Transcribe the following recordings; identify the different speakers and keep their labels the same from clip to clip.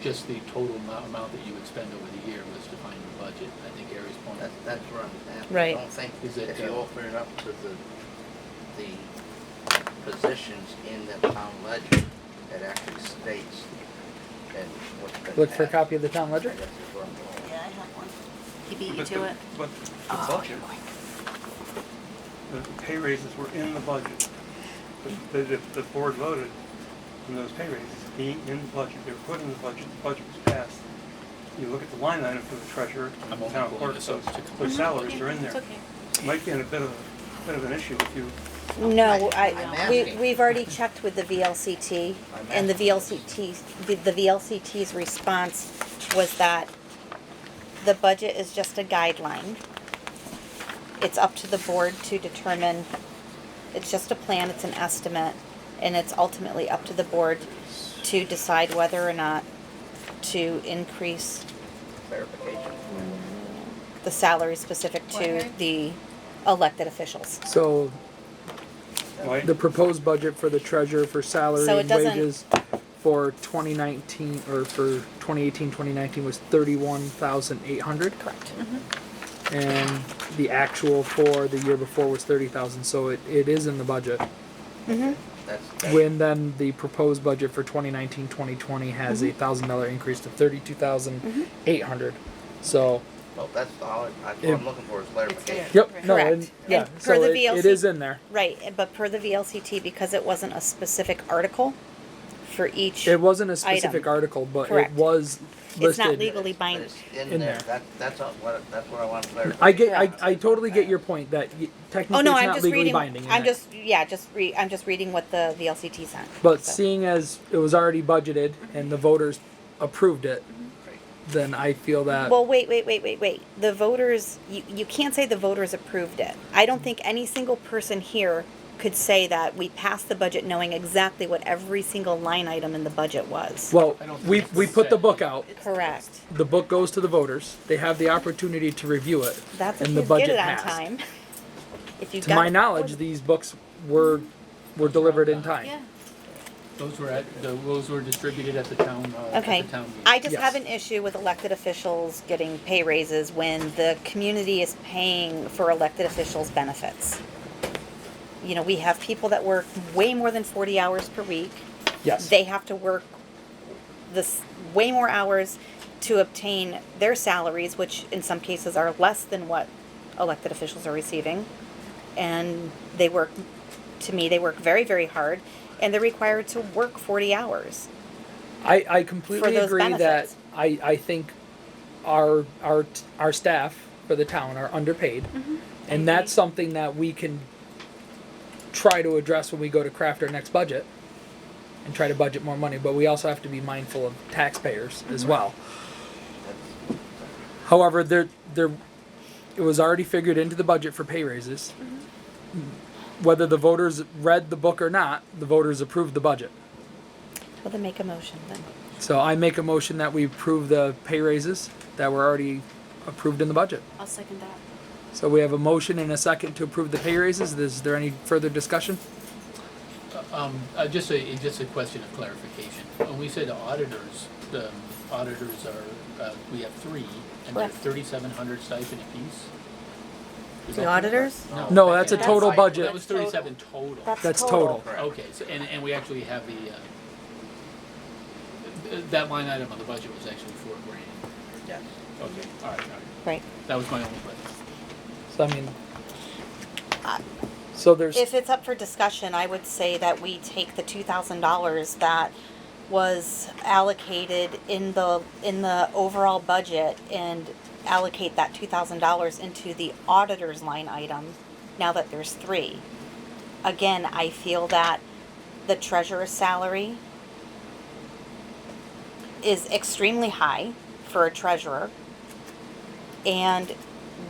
Speaker 1: just the total amou- amount that you would spend over the year was defined in the budget. I think Gary's point,
Speaker 2: That's, that's where I'm at.
Speaker 3: Right.
Speaker 2: I don't think,
Speaker 1: Is it,
Speaker 2: if you
Speaker 1: uh,
Speaker 2: open it up to the, the positions in the town ledger, it actually states that what's been.
Speaker 4: Look for a
Speaker 2: asked.
Speaker 4: copy of the town
Speaker 2: I
Speaker 4: ledger.
Speaker 2: guess is where I'm going.
Speaker 5: Yeah, I have one. He beat you
Speaker 6: But
Speaker 5: to
Speaker 6: the-
Speaker 5: it.
Speaker 6: But the
Speaker 5: Oh,
Speaker 6: budget,
Speaker 5: boy.
Speaker 6: the the pay raises were in the budget. The, the, the board voted on those pay raises being in the budget. They were put in the budget, the budget was passed. You look at the line item for the treasurer,
Speaker 1: I'm
Speaker 6: the
Speaker 1: only
Speaker 6: town
Speaker 1: pulling
Speaker 6: clerk,
Speaker 1: this
Speaker 6: those,
Speaker 1: up to-
Speaker 6: those salaries
Speaker 5: Mhm. Okay,
Speaker 6: are in
Speaker 5: It's
Speaker 6: there.
Speaker 5: okay.
Speaker 6: Might be in a bit of, a bit of an issue if you,
Speaker 3: No,
Speaker 2: I'm
Speaker 3: I, we,
Speaker 2: asking.
Speaker 3: we've already checked with the VLCT,
Speaker 2: I'm
Speaker 3: and the
Speaker 2: asking.
Speaker 3: VLCT, the- the VLCT's response was that the budget is just a guideline. It's up to the board to determine, it's just a plan, it's an estimate, and it's ultimately up to the board to decide whether or not to increase
Speaker 2: Clarification.
Speaker 3: the salary specific to
Speaker 5: What?
Speaker 3: the elected officials.
Speaker 4: So
Speaker 6: might,
Speaker 4: the proposed budget for the treasurer for salary
Speaker 3: So it
Speaker 4: and
Speaker 3: doesn't-
Speaker 4: wages for 2019 or for 2018 2019 was 31,800
Speaker 3: Correct.
Speaker 4: Mm-hmm. and the actual for the year before was 30,000 so it, it is in the budget
Speaker 2: That's, that's.
Speaker 4: when then the proposed budget for 2019 2020 has
Speaker 3: Mm-hmm.
Speaker 4: a thousand dollar increase to 32,800
Speaker 3: Mm-hmm.
Speaker 4: so
Speaker 2: Well, that's all, I- that's
Speaker 4: Yeah.
Speaker 2: what I'm looking for is clarification.
Speaker 4: yep no
Speaker 3: Correct.
Speaker 4: and, yeah
Speaker 3: And per
Speaker 4: so
Speaker 3: the
Speaker 4: it, it
Speaker 3: VLCT
Speaker 4: is in there
Speaker 3: Right, eh, but per the VLCT, because it wasn't a specific article for each,
Speaker 4: it wasn't a specific
Speaker 3: Item.
Speaker 4: article but
Speaker 3: Correct.
Speaker 4: it was listed
Speaker 3: it's not legally
Speaker 2: But
Speaker 3: binding.
Speaker 2: it's in
Speaker 4: In
Speaker 2: there,
Speaker 4: there.
Speaker 2: that, that's all, what, that's what I want clarification.
Speaker 4: I get, I,
Speaker 2: on.
Speaker 4: I totally get your point that y- technically
Speaker 3: Oh, no,
Speaker 4: it's
Speaker 3: I'm
Speaker 4: not
Speaker 3: just
Speaker 4: legally
Speaker 3: reading,
Speaker 4: binding. in
Speaker 3: I'm
Speaker 4: it.
Speaker 3: just, yeah, just re, I'm just reading what the VLCT sent.
Speaker 4: But
Speaker 3: so.
Speaker 4: seeing as it was already budgeted and the voters approved it, then I feel that
Speaker 3: Well, wait, wait, wait, wait, wait. The voters, you, you can't say the voters approved it. I don't think any single person here could say that we passed the budget knowing exactly what every single line item in the budget was.
Speaker 4: well,
Speaker 1: I don't think
Speaker 4: we
Speaker 1: it's
Speaker 4: we put the
Speaker 1: set.
Speaker 4: book out.
Speaker 3: Correct.
Speaker 4: The book goes to the voters. They have the opportunity to review it.
Speaker 3: That's if
Speaker 4: and
Speaker 3: you
Speaker 4: the budget
Speaker 3: get it on
Speaker 4: passed.
Speaker 3: time. If you
Speaker 4: To
Speaker 3: got
Speaker 4: my
Speaker 3: it-
Speaker 4: knowledge, these books were were delivered in time.
Speaker 5: Yeah.
Speaker 1: those were at, the- those were distributed at the town, uh, at
Speaker 3: Okay,
Speaker 1: the town meeting.
Speaker 3: I just
Speaker 4: Yes.
Speaker 3: have an issue with elected officials getting pay raises when the community is paying for elected officials' benefits. You know, we have people that work way more than forty hours per week.
Speaker 4: Yes.
Speaker 3: They have to work this, way more hours to obtain their salaries, which in some cases are less than what elected officials are receiving. And they work, to me, they work very, very hard, and they're required to work forty hours.
Speaker 4: I, I completely
Speaker 3: those
Speaker 4: agree
Speaker 3: benefits.
Speaker 4: that I, I think our our t- our staff for the town are underpaid,
Speaker 3: Mm-hmm.
Speaker 4: and that's something that we can try to address when we go to craft our next budget and try to budget more money. But we also have to be mindful of taxpayers as
Speaker 3: Mm-hmm.
Speaker 4: well.
Speaker 2: That's-
Speaker 4: However, there there it was already figured into the budget for pay raises.
Speaker 3: Mm-hmm.
Speaker 4: Whether the voters read the book or not, the voters approved the budget.
Speaker 3: Well, then make a motion then.
Speaker 4: So I make a motion that we approve the pay raises that were already approved in the budget.
Speaker 5: I'll second that.
Speaker 4: So we have a motion and a second to approve the pay raises. Is there any further discussion?
Speaker 1: Um, uh, just a, just a question of clarification. When we say the auditors, the auditors are, uh, we have three, and they're
Speaker 3: Correct.
Speaker 1: thirty-seven hundred stipend apiece? Is
Speaker 3: The
Speaker 1: that-
Speaker 3: auditors?
Speaker 4: No, that's a total
Speaker 2: That's-
Speaker 4: budget.
Speaker 1: That was
Speaker 5: Uh,
Speaker 1: thirty-seven total.
Speaker 4: That's total.
Speaker 2: Correct.
Speaker 1: Okay, so, and, and we actually have the, uh, th- that line item on the budget was actually four grand.
Speaker 2: Yes.
Speaker 1: Okay, all right, all right.
Speaker 3: Right.
Speaker 1: That was my only question.
Speaker 4: So I mean, Uh, so there's,
Speaker 3: If it's up for discussion, I would say that we take the two thousand dollars that was allocated in the, in the overall budget and allocate that two thousand dollars into the auditor's line item, now that there's three. Again, I feel that the treasurer's salary is extremely high for a treasurer. And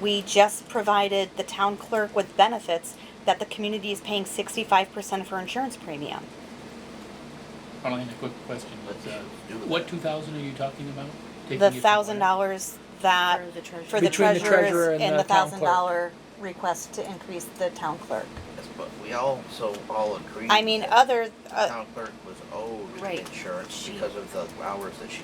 Speaker 3: we just provided the town clerk with benefits that the community is paying sixty-five percent of her insurance premium.
Speaker 1: Marlene, a quick question,
Speaker 2: Let's
Speaker 1: but, uh,
Speaker 2: do it.
Speaker 1: what two thousand are you talking about? Taking
Speaker 3: The
Speaker 1: it from where?
Speaker 3: thousand dollars that,
Speaker 5: For the treasurer.
Speaker 3: for the
Speaker 4: Between the treasurer
Speaker 3: treasurers
Speaker 4: and
Speaker 3: and
Speaker 4: the
Speaker 3: the
Speaker 4: town
Speaker 3: thousand
Speaker 4: clerk.
Speaker 3: dollar request to increase the town clerk.
Speaker 2: Yes, But we also all agree.
Speaker 3: I mean,
Speaker 2: that
Speaker 3: other,
Speaker 2: the
Speaker 3: uh,
Speaker 2: Town clerk was owed
Speaker 5: Right.
Speaker 2: insurance
Speaker 5: She-
Speaker 2: because of the hours that she